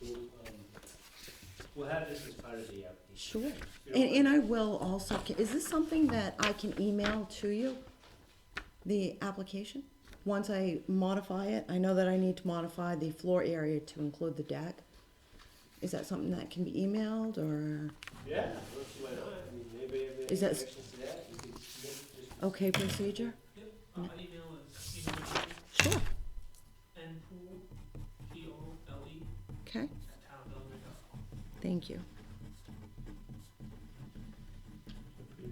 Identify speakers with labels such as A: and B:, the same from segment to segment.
A: we'll, um, we'll have this as part of the application.
B: Sure.
A: You know,
B: And, and I will also, is this something that I can email to you? The application? Once I modify it, I know that I need to modify the floor area to include the deck. Is that something that can be emailed or,
A: Yeah, let's why not, I mean, anybody have any
B: Is that s-
A: objections to that, you can submit just.
B: okay procedure?
C: Uh, my email is email
B: Sure.
C: npool, P O L E,
B: Okay,
C: at townbuilder.com.
B: thank you. Oh.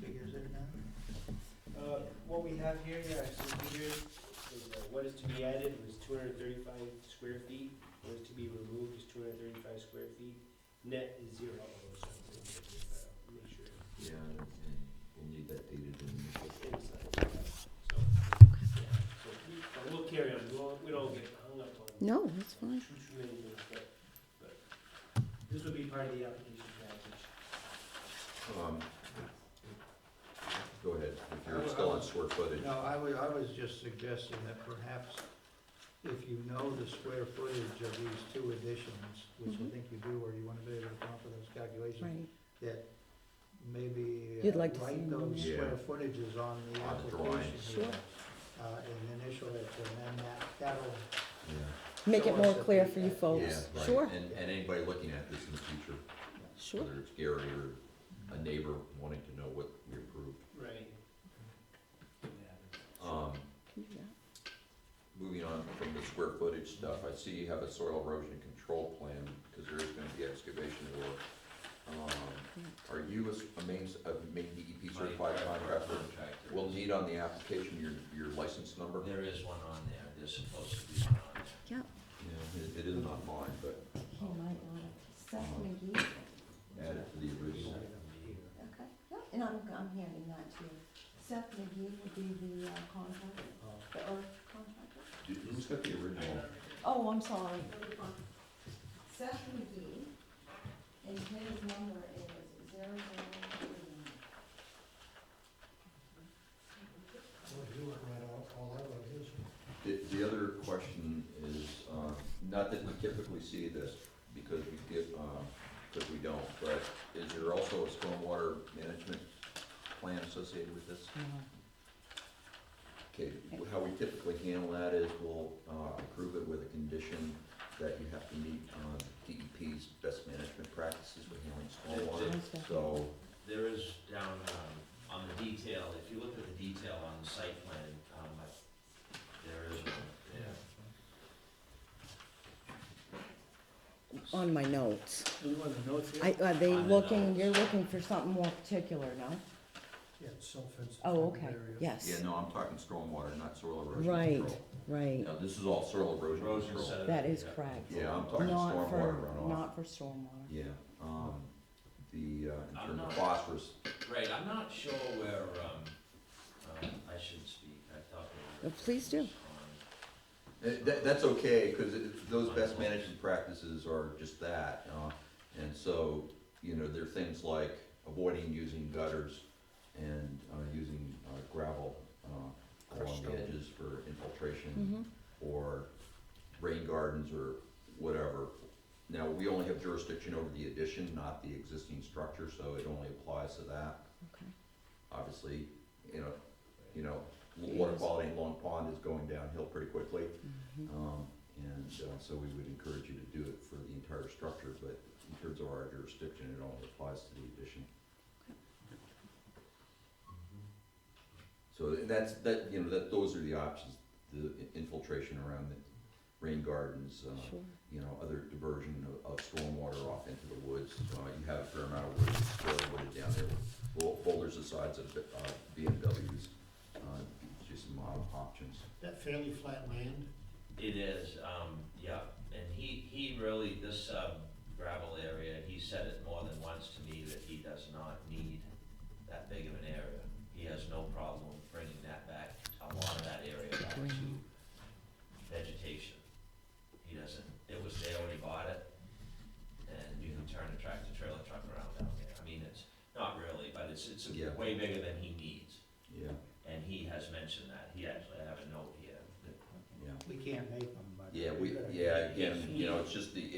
D: Figures there now?
A: Uh, what we have here, yeah, so figures, is, uh, what is to be added was two hundred thirty-five square feet, what is to be removed is two hundred thirty-five square feet, net is zero. although it's not gonna be zero, but I'll Make sure
E: Yeah, and we'll need that dated in the
A: it's inside, so, yeah, so we, but we'll carry on, we won't, we don't get hung up on.
B: No, that's fine.
A: Too, too many things, but, but, this will be part of the application package.
E: Um, Go ahead, if you're still on square footage.
D: No, I was, I was just suggesting that perhaps if you know the square footage of these two additions, which I
B: Mhm.
D: think you do, or you wanna be able to come up with those calculations,
B: Right,
D: that maybe uh,
B: You'd like to see
D: write
B: them in
D: those
E: there.
D: square footages on the
E: On the drawing.
D: application
B: Sure.
D: here. Uh, and initial it, and then that, that'll,
E: Yeah,
B: make it more clear for you
E: yeah,
B: folks. Oh, Sure,
E: right, and, and anybody looking at this in the future,
B: sure.
E: whether it's Gary or a neighbor wanting to know what we approved.
A: Right.
E: Um,
B: Can do that.
E: moving on from the square footage stuff, I see you have a soil erosion control plan, because there is gonna be excavation work. Um, Are you a s- a main, s- a main DEP certified contractor?
F: Contractor.
E: We'll need on the application your, your license number.
F: There is one on there, there's supposed to be one on there.
B: Yeah,
E: Yeah, it- it is not mine, but
B: he might want it. Seth McGee,
E: add it to the original.
B: okay, yeah, and I'm, I'm handing that to you. Seth McGee would be the uh, contractor,
F: Oh.
B: the earth contractor.
E: Dude, Who's got the original?
B: Oh, I'm sorry. Seth McGee, and his number is zero zero three
D: you went right all, all that was his.
E: The, the other question is, uh, not that we typically see this, because we get, uh, because we don't, but is there also a stormwater management plan associated with this?
B: nine.
E: Okay, how we typically handle that is we'll, uh, approve it with a condition that you have to meet, uh, DEP's best management practices for handling stormwater.
B: Uh-huh.
E: So,
F: There is down, um, on the detail, if you look at the detail on the site plan, um, I- there is one, yeah.
B: On my notes.
D: Do you want the notes here?
B: I, are they
F: On the
B: looking,
F: notes.
B: you're looking for something more particular, no?
D: Yeah, it's self-fenced.
B: Oh, okay, yes,
E: yeah, no, I'm talking stormwater, not soil erosion
B: Right.
E: control.
B: right,
E: Now, this is all soil erosion
F: Erosion
E: control.
F: sediment,
B: that is
F: yeah.
B: correct.
E: Yeah, I'm talking
B: Not
E: stormwater
B: for,
E: runoff.
B: not for stormwater.
E: Yeah, um, the, uh, in
F: I'm
E: terms of
F: not-
E: phosphorus,
F: Right, I'm not sure where, um, um, I should speak, I thought. there
B: Uh,
F: was-
B: please do.
E: eh, that, that's okay, cause it, those best management practices are just that, uh, and so, you know, there are things like avoiding using gutters and, uh, using uh, gravel, uh, along the edges for infiltration,
B: Mm-hmm,
E: or rain gardens or whatever. Now, we only have jurisdiction over the addition, not the existing structure, so it only applies to that.
B: okay,
E: obviously, you know, you know, water quality in Long Pond is going downhill pretty quickly.
B: mhm,
E: Um, and uh, so we would encourage you to do it for the entire structure, but in terms of our jurisdiction, it only applies to the addition. So and that's, that, you know, that, those are the options, the infiltration around the rain gardens, uh,
B: sure,
E: you know, other diversion of, of stormwater off into the woods. Uh, you have a fair amount of woods, fairly wooded down there, with bou- boulders the size of, uh, BMWs. Uh, just some model options.
D: That fairly flat land?
F: It is, um, yeah, and he, he really, this, um, gravel area, he said it more than once to me that he does not need that big of an area. He has no problem bringing that back, a lot of that area back
B: Green.
F: to vegetation. He doesn't, it was there when he bought it, and you can turn a tractor trailer truck around down there. I mean, it's, not really, but it's, it's
E: Yeah.
F: way bigger than he needs,
E: Yeah,
F: and he has mentioned that. He actually, I have a note here that
E: yeah.
D: We can't make them, but.
E: Yeah, we,
D: gotta-
E: yeah, again, you know, it's just the,